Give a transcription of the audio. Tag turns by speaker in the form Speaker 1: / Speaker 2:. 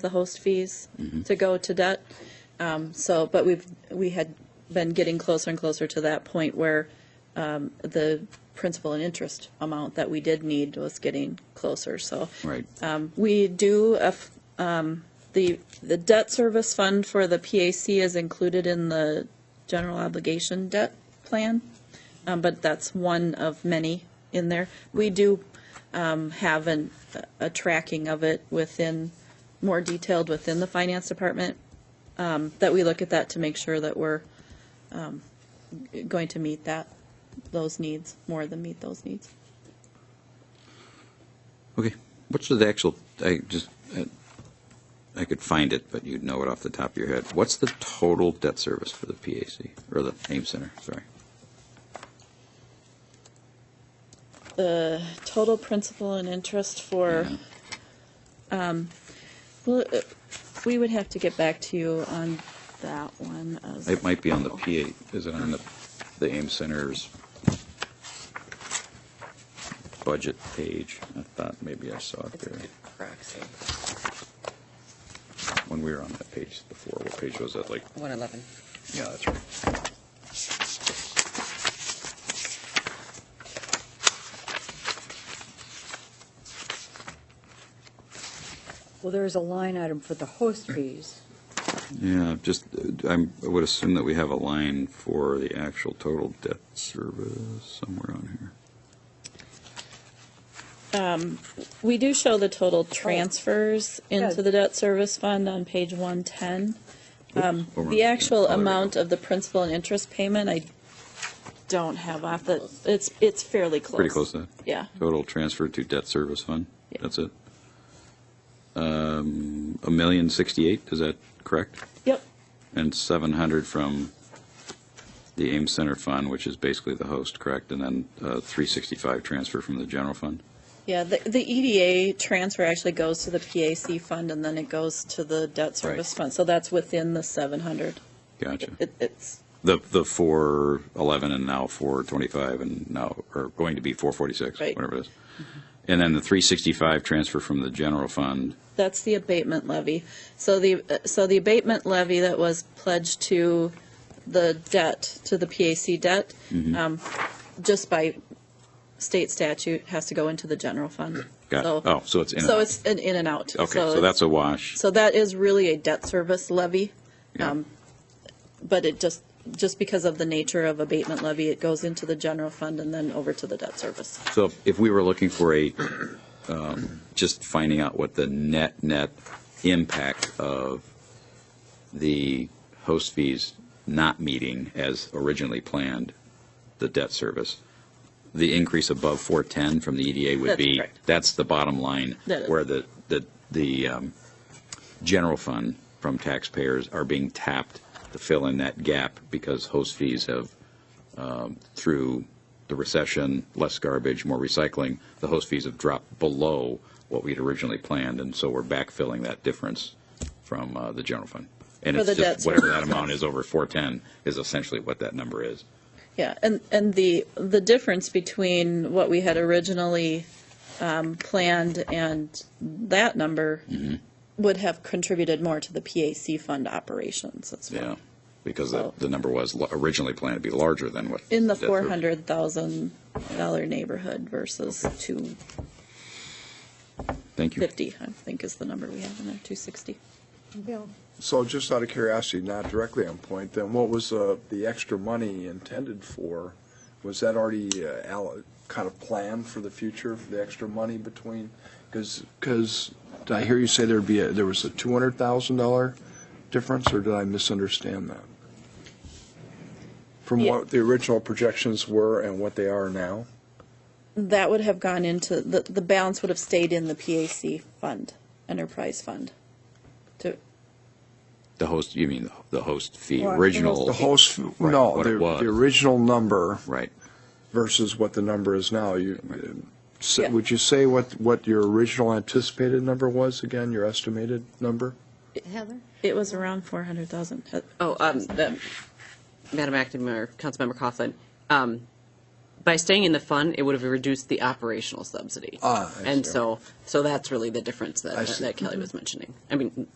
Speaker 1: the host fees to go to debt. Um, So, but we've, we had been getting closer and closer to that point where um, the principal and interest amount that we did need was getting closer, so.
Speaker 2: Right.
Speaker 1: Um, We do, a f- um, the, the debt service fund for the PAC is included in the general obligation debt plan, um, but that's one of many in there. We do um, have an, a- a tracking of it within, more detailed within the finance department, um, that we look at that to make sure that we're um, g- going to meet that, those needs, more than meet those needs.
Speaker 2: Okay, what's the actual, I just, I- I could find it, but you'd know it off the top of your head. What's the total debt service for the PAC, or the Ames Center, sorry?
Speaker 1: the total principal and interest for, um,
Speaker 2: Yeah.
Speaker 1: well, uh, we would have to get back to you on that one. as-
Speaker 2: It might be on the PA, is it on the, the Ames Center's budget page? I thought maybe I saw it there
Speaker 3: Proxy,
Speaker 2: when we were on that page before. What page was that, like,
Speaker 3: 111.
Speaker 2: yeah, that's right.
Speaker 4: Well, there's a line item for the host fees.
Speaker 2: Yeah, just, uh, I'm, I would assume that we have a line for the actual total debt service somewhere on here.
Speaker 1: We do show the total transfers into
Speaker 4: Good.
Speaker 1: the debt service fund on page 110.
Speaker 2: Oops, over on-
Speaker 1: Um, The
Speaker 2: yeah, oh,
Speaker 1: actual
Speaker 2: there we go.
Speaker 1: amount of the principal and interest payment, I don't have off the, it's, it's fairly close.
Speaker 2: Pretty close to that.
Speaker 1: Yeah.
Speaker 2: Total transfer to debt service fund?
Speaker 1: Yeah.
Speaker 2: That's it? Um, A million sixty-eight, is that correct?
Speaker 1: Yep,
Speaker 2: And seven hundred from the Ames Center Fund, which is basically the host, correct? And then uh, three sixty-five transfer from the general fund?
Speaker 1: yeah, the, the EDA transfer actually goes to the PAC fund and then it goes to the debt service fund. So that's within the 700.
Speaker 2: Gotcha.
Speaker 1: It, it's,
Speaker 2: The, the four eleven and now four twenty-five and now, or going to be four forty-six,
Speaker 1: Right.
Speaker 2: whatever it is. And then the three sixty-five transfer from the general fund,
Speaker 1: That's the abatement levy. So the, so the abatement levy that was pledged to the debt, to the PAC debt,
Speaker 2: Mm-hmm.
Speaker 1: um, just by state statute, has to go into the general fund.
Speaker 2: got,
Speaker 1: So-
Speaker 2: oh, so it's in. and
Speaker 1: So
Speaker 2: out.
Speaker 1: it's an in and out.
Speaker 2: Okay, so that's a wash.
Speaker 1: So that is really a debt service levy,
Speaker 2: Yeah.
Speaker 1: um, but it just, just because of the nature of abatement levy, it goes into the general fund and then over to the debt service.
Speaker 2: So if- if we were looking for a, um, just finding out what the net, net impact of the host fees not meeting as originally planned, the debt service, the increase above 410 from the EDA would
Speaker 1: That's
Speaker 2: be,
Speaker 1: correct.
Speaker 2: that's the bottom line,
Speaker 1: That is.
Speaker 2: where the, the, the um, general fund from taxpayers are being tapped to fill in that gap because host fees have um, through the recession, less garbage, more recycling, the host fees have dropped below what we'd originally planned, and so we're backfilling that difference from uh, the general fund. And
Speaker 1: For
Speaker 2: it's
Speaker 1: the
Speaker 2: just
Speaker 1: debt
Speaker 2: whatever that
Speaker 1: service.
Speaker 2: amount is over 410 is essentially what that number is.
Speaker 1: Yeah, and, and the, the difference between what we had originally um, planned and that number would have contributed more to the PAC fund operations as well.
Speaker 2: Because the,
Speaker 1: So-
Speaker 2: the number was lo- originally planned to be larger than what.
Speaker 1: In the
Speaker 2: debt service-
Speaker 1: four hundred thousand dollar neighborhood versus two
Speaker 2: Thank you.
Speaker 1: fifty, I think is the number we have in there, two sixty.
Speaker 4: Bill,
Speaker 5: So just out of curiosity, not directly on point, then what was uh, the extra money intended for? Was that already uh, allo- kind of planned for the future, for the extra money between? Because, did I hear you say there'd be, a- there was a $200,000 difference, or did I misunderstand that? From
Speaker 1: Yeah.
Speaker 5: what the original projections were and what they are now?
Speaker 1: That would have gone into, the, the balance would have stayed in the PAC fund, enterprise fund. To,
Speaker 2: The host, you mean the- the host fee,
Speaker 4: Well, I think it was
Speaker 2: original,
Speaker 5: The host,
Speaker 2: Right,
Speaker 5: no,
Speaker 2: what it
Speaker 5: the
Speaker 2: was.
Speaker 5: the original number
Speaker 2: right?
Speaker 5: versus what the number is now. You, uh, s-
Speaker 1: Yeah.
Speaker 5: would you say what, what your original anticipated number was again, your estimated number?
Speaker 3: Heather?
Speaker 1: it was around four hundred thousand.
Speaker 3: Oh, um, the- Madam Acting Mayor, Councilmember Coughlin, um, by staying in the fund, it would have reduced the operational subsidy.
Speaker 5: Ah, I
Speaker 3: And
Speaker 5: see.
Speaker 3: so, so that's really the difference
Speaker 5: I
Speaker 3: that
Speaker 5: see.
Speaker 3: that Kelly was mentioning. I mean,